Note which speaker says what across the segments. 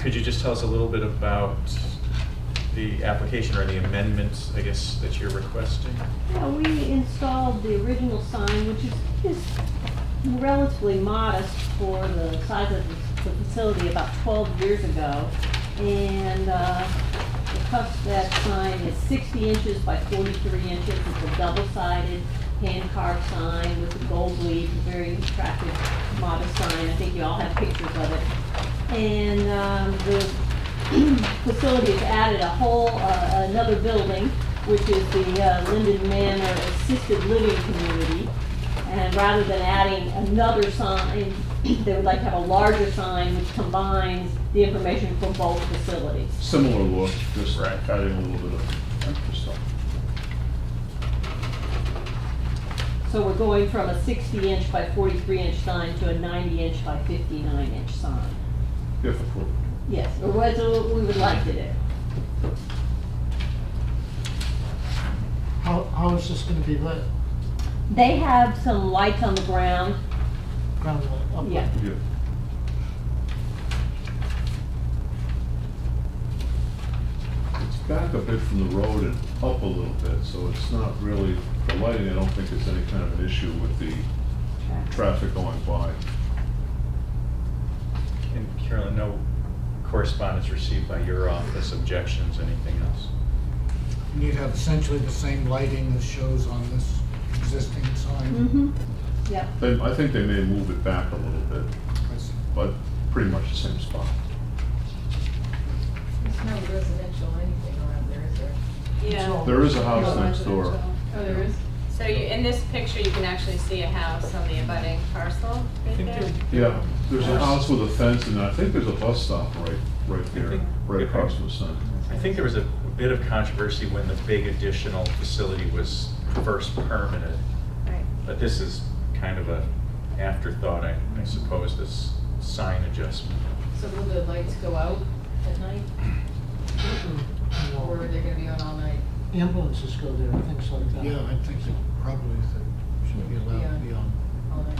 Speaker 1: Could you just tell us a little bit about the application or the amendments, I guess, that you're requesting?
Speaker 2: Yeah, we installed the original sign, which is, is relatively modest for the size of the the facility about twelve years ago. And, uh, the cuff of that sign is sixty inches by forty-three inches, it's a double-sided hand-carved sign with a gold leaf, a very attractive, modest sign, I think you all have pictures of it. And, um, the facility has added a whole, uh, another building, which is the uh, Linden Manor Assisted Living Community. And rather than adding another sign, they would like to have a larger sign which combines the information from both facilities.
Speaker 3: Similar look, just
Speaker 1: Right.
Speaker 3: adding a little bit of extra stuff.
Speaker 2: So we're going from a sixty inch by forty-three inch sign to a ninety inch by fifty-nine inch sign.
Speaker 3: If approved.
Speaker 2: Yes, or what we would like to do.
Speaker 4: How, how is this gonna be lit?
Speaker 2: They have some lights on the ground,
Speaker 4: Ground lit, up lit?
Speaker 2: yeah.
Speaker 3: Yeah. It's back a bit from the road and up a little bit, so it's not really, the lighting, I don't think is any kind of an issue with the traffic going by.
Speaker 1: And Carolyn, no correspondence received by your office, objections, anything else?
Speaker 5: And you'd have essentially the same lighting as shows on this existing sign.
Speaker 2: Mm-hmm, yep.
Speaker 3: They, I think they may move it back a little bit,
Speaker 5: That's-
Speaker 3: but pretty much the same spot.
Speaker 6: There's no residential anything around there, is there?
Speaker 7: Yeah.
Speaker 3: There is a house next door.
Speaker 6: Oh, there is?
Speaker 7: So you, in this picture, you can actually see a house on the abutting parcel
Speaker 1: I
Speaker 7: right
Speaker 1: think
Speaker 7: there.
Speaker 1: there-
Speaker 3: Yeah, there's a house with a fence and I think there's a bus stop right, right there,
Speaker 1: think-
Speaker 3: right across from the center.
Speaker 1: I think there was a bit of controversy when the big additional facility was first permanent,
Speaker 7: Right.
Speaker 1: but this is kind of a afterthought, I I suppose, this sign adjustment.
Speaker 6: So will the lights go out at night, or are they gonna be on all night?
Speaker 4: Ambulances go there, and things like that.
Speaker 5: Yeah, I think that probably they should be allowed to be on.
Speaker 6: All night.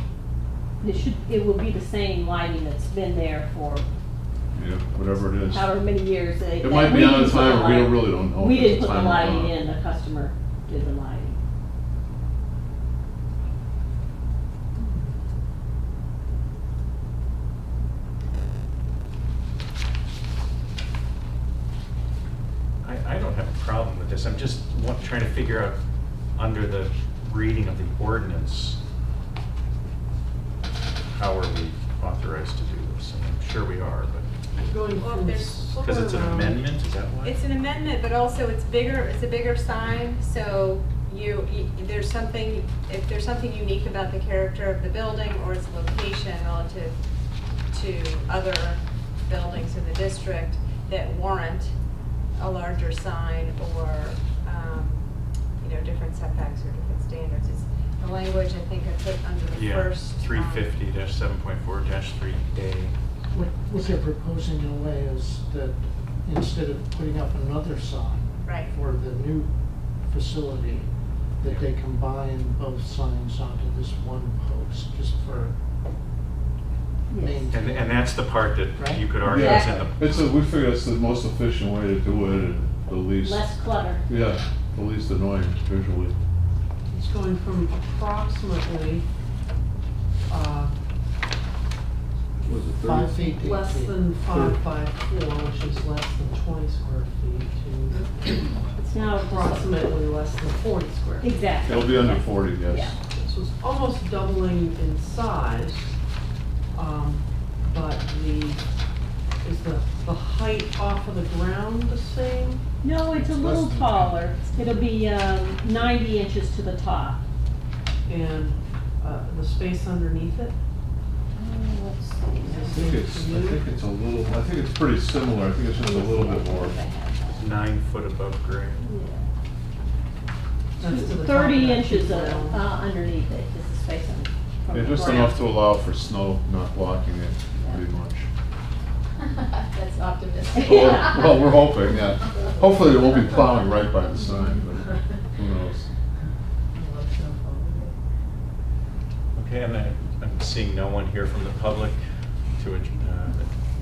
Speaker 2: It should, it will be the same lighting that's been there for
Speaker 3: Yeah, whatever it is.
Speaker 2: however many years. They-
Speaker 3: It might be
Speaker 2: we
Speaker 3: on a
Speaker 2: didn't put the
Speaker 3: timer, we don't
Speaker 2: light-
Speaker 3: really don't know.
Speaker 2: We
Speaker 3: if it's
Speaker 2: didn't put the
Speaker 3: timer or
Speaker 2: lighting
Speaker 3: not.
Speaker 2: in, the customer did the lighting.
Speaker 1: I, I don't have a problem with this, I'm just wa- trying to figure out, under the reading of the ordinance, how are we authorized to do this? And I'm sure we are, but,
Speaker 4: Going
Speaker 7: Well,
Speaker 4: from
Speaker 7: there's- um,
Speaker 4: s-
Speaker 1: because it's an amendment, is that why?
Speaker 7: It's an amendment, but also it's bigger, it's a bigger sign, so you, you- there's something, if there's something unique about the character of the building or its location relative to other buildings in the district that warrant a larger sign or, um, you know, different setbacks or different standards. It's the language, I think, I put under the
Speaker 1: Yeah,
Speaker 7: first. um,
Speaker 1: three fifty seven point four three A.
Speaker 4: What, what they're proposing in a way is that instead of putting up another sign
Speaker 7: Right.
Speaker 4: for the new facility, that they combine both signs onto this one post, just for
Speaker 2: Yes.
Speaker 4: main.
Speaker 1: And, and that's the part that you could argue is in
Speaker 3: Yeah,
Speaker 1: the,
Speaker 3: it's a, we figure it's the most efficient way to do it and the least,
Speaker 2: Less clutter.
Speaker 3: yeah, the least annoying visually.
Speaker 8: It's going from approximately, uh,
Speaker 3: Was it
Speaker 4: Five
Speaker 3: thirty?
Speaker 4: feet, eight feet.
Speaker 8: less than five by four, which is less than twenty square feet, to
Speaker 2: It's now
Speaker 8: approximately less than forty square. feet.
Speaker 2: Exactly.
Speaker 3: It'll be under forty, yes.
Speaker 2: Yeah.
Speaker 8: So it's almost doubling in size, um, but the, is the, the height off of the ground the same?
Speaker 2: No, it's a
Speaker 5: It's less
Speaker 2: little
Speaker 5: than-
Speaker 2: taller. It'll be um, ninety inches to the top.
Speaker 8: And, uh, the space underneath it?
Speaker 2: Uh,
Speaker 3: I think it's, I think it's a little, I think it's pretty similar, I think it's just a little bit more.
Speaker 1: nine foot above grade.
Speaker 8: That's to the top of
Speaker 2: Thirty
Speaker 8: that
Speaker 2: inches uh,
Speaker 8: ground.
Speaker 2: uh, underneath it is the space on- from
Speaker 3: Yeah,
Speaker 2: the
Speaker 3: just
Speaker 2: ground.
Speaker 3: enough to allow for snow not blocking it pretty much.
Speaker 6: That's
Speaker 3: Or-
Speaker 6: optimistic.
Speaker 3: Well, we're hoping, yeah. Hopefully it won't be plowing right by the sign, but who knows?
Speaker 6: I love snowfall.
Speaker 1: Okay, and I, I'm seeing no one here from the public to uh, ad-